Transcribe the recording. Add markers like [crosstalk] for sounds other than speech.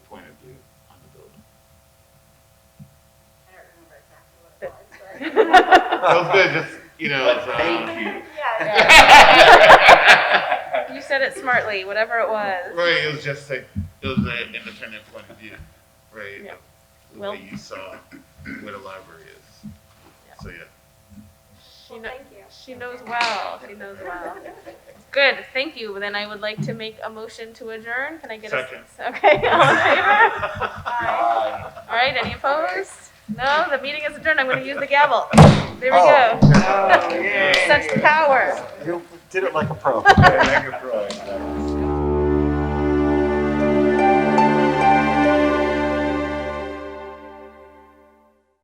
[laughs] Feels good, just, you know. it's, uh, [laughs] [laughs] Thank you. Yeah, Right, yeah. You said it smartly, whatever it was. it was just like, it was an independent point of view, right? Yeah. of The Well- way you saw where the library is. So, yeah. She kno- Thank you. She knows well, she knows well. [laughs] Good, thank you. Then I would like to make a motion to adjourn. Can I get a? Second. Okay, [laughs] all in favor? Bye. All right, any opposed? No, the meeting is adjourned. I'm gonna use the gavel. There we Oh. go. Such power. You did it like a pro. Yeah, make it right.